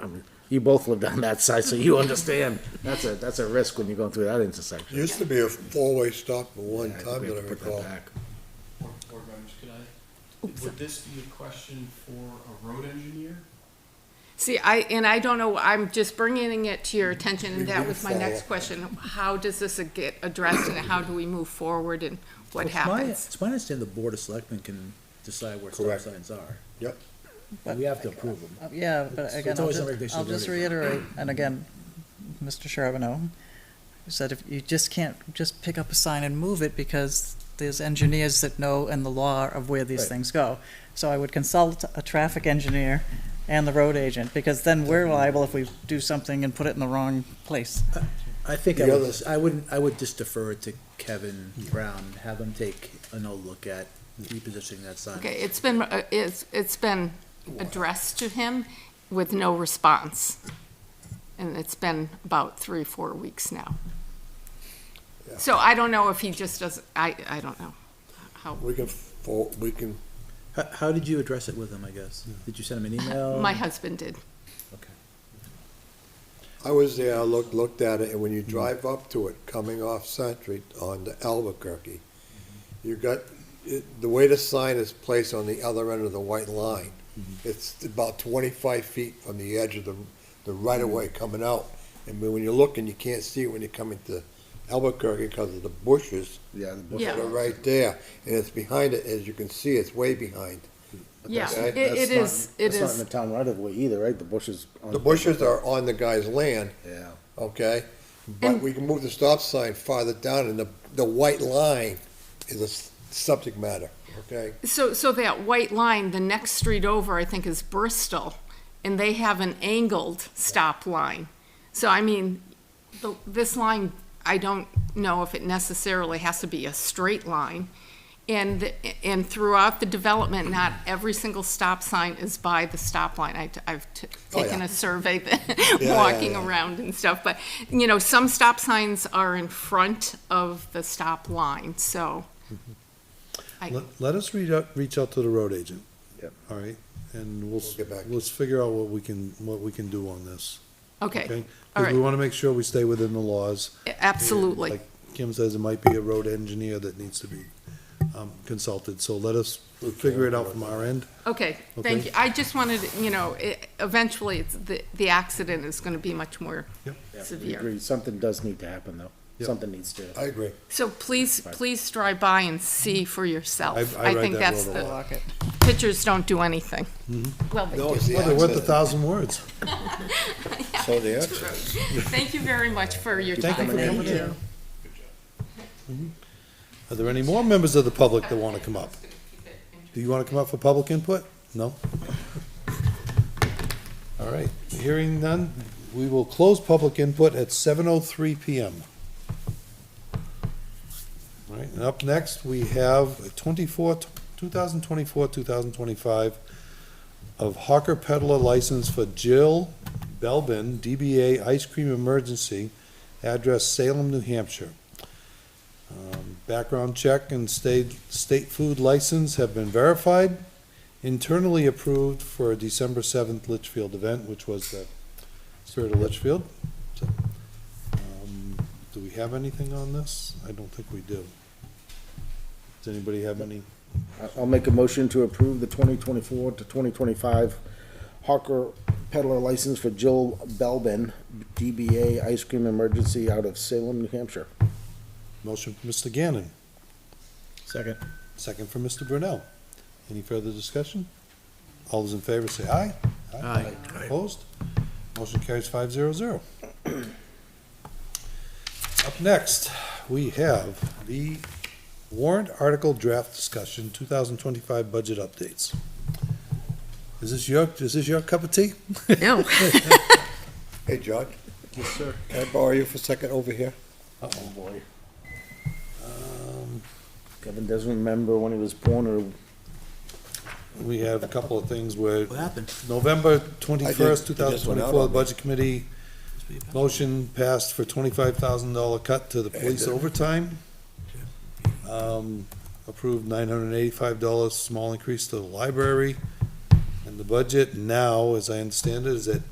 I mean, you both lived on that side, so you understand, that's a, that's a risk when you're going through that intersection. Used to be a four-way stop at one Yeah, time we have that to I put that recall. back. Board board members, could I, would this be a question for a road engineer? See, I, and I don't know, I'm just bringing it to your attention, We and that did was my follow next up. question. How does this get addressed and how do we move forward and what It's my- happens? It's my understanding the Board of Selectmen can decide where stop Correct. signs are. Yep. But we have to approve them. Uh, Yeah, but It's- again, it's I'll always just, something they should I'll just already- reiterate, and again, Mr. Charbonneau said if, you just can't just pick up a sign and move it because there's engineers that know and the law of where these Right. things go. So I would consult a traffic engineer and the road agent, because then we're liable if we do something and put it in the wrong place. I think I The would, other- just- I wouldn't, I would just defer it to Kevin Brown, have him take a no look at repositioning that sign. Okay, it's been, uh, it's, it's been addressed to him with no response. And it's been about three, four weeks now. Yeah. So I don't know if he just doesn't, I, I don't know how, We can, fo- we can, How, how did you address it with him, I guess? Did you send him an email? Uh, my husband did. Okay. I was there, I looked, looked at it, and when you Hmm. drive up to it, coming off Century onto Albuquerque, Mm-hmm. you got, it- the way the sign is placed on the other end of the white line, Mm-hmm. it's about twenty-five feet from the edge of the, the Mm-hmm. right-of-way coming out. And when you're looking, you can't see it when you're coming to Albuquerque because of the bushes. Yeah, the bush- Yeah. that are right there, and it's behind it, as you can see, it's way behind. but Yeah, that's- it- that's it not- is- it That's not is. in the town right of way either, right? The bushes. on- The bushes are on the guy's land, Yeah. okay? But And- we can move the stop sign farther down, and the, the white line is a s- subject matter, okay? So, so that white line, the next street over, I think, is Bristol, and they have an angled stop line. So, I mean, the, this line, I don't know if it necessarily has to be a straight line. And, the- and throughout the development, not every single stop sign is by the stop line. I, have Oh, yeah. taken a survey, yeah, walking yeah. around and stuff, but, you know, some stop signs are in front of the stop line, so. Mm-hmm. I- Let, let us reach out, reach out to the road agent. Yep. All right, and we'll, s- We'll get back to let's figure out what we can, what we can do on this. Okay, all Because we right, wanna make sure we stay within the laws. absolutely. Like Kim says, it might be a road engineer that needs to be, um, consulted, so let us figure it out from our end. Okay, Okay. thank you. I just wanted, you know, e- eventually, it's, the, the accident is gonna be much more Yep. Yeah, we severe. agree. Something does need to happen, though. Yep. Something needs to. I agree. So please, please drive by and see for yourself. I- I I ride think that that's road a Mm-hmm. the, Block it. pictures don't do anything. Well, they No, do. it's the Well, they're worth a accident. thousand words. So the It's accident. true. Thank you very much for your Thank you time. for coming in. Are there any more members of the public that wanna come up? Do you wanna come up for public input? No? All right, hearing none, we will close public input at seven oh three PM. All right, and up next, we have twenty-four, two thousand twenty-four, two thousand twenty-five of Hawker Peddler license for Jill Belbin, DBA Ice Cream Emergency, address Salem, New Hampshire. Um, Background check and state, state food license have been verified, internally approved for a December seventh Litchfield event, which was the Spirit of Litchfield. So, um, Do we have anything on this? I don't think we do. Does anybody have any? I- I'll make a motion to approve the twenty twenty-four to twenty twenty-five Hawker peddler license for Jill Belbin, DBA Ice Cream Emergency out of Salem, New Hampshire. Motion from Mr. Gannon, Second. second from Mr. Brunel. Any further discussion? All those in favor say aye. Aye. Opposed? Motion carries five zero zero. Up next, we have the warrant article draft discussion, two thousand twenty-five budget updates. Is this your, is this your cup of tea? No. Hey, John? Yes, sir. Can I borrow you for a second over here? Oh, boy. Kevin doesn't remember when he was born or We have a couple of things where What happened? November I did- twenty-first, two it just thousand went out twenty-four, on me. Budget Committee motion passed for twenty-five thousand dollar cut to the police And, uh, overtime. Um, approved nine hundred and eighty-five dollars, small increase to the library. And the budget now, as I understand it, is at